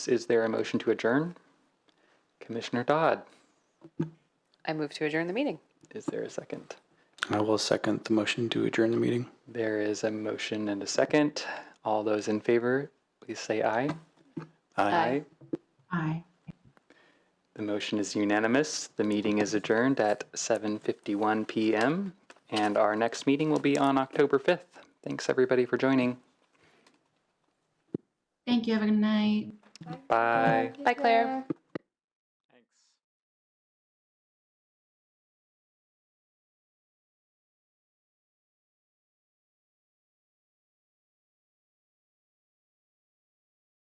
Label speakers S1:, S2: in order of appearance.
S1: Is there a motion to adjourn? Commissioner Dodd,
S2: I move to adjourn the meeting.
S1: is there a second?
S3: I will second the motion to adjourn the meeting.
S1: There is a motion and a second. All those in favor, please say aye.
S2: Aye.
S4: Aye.
S1: The motion is unanimous. The meeting is adjourned at 7:51 PM, and our next meeting will be on October 5th. Thanks, everybody, for joining.
S4: Thank you. Have a good night.
S1: Bye.
S2: Bye, Claire.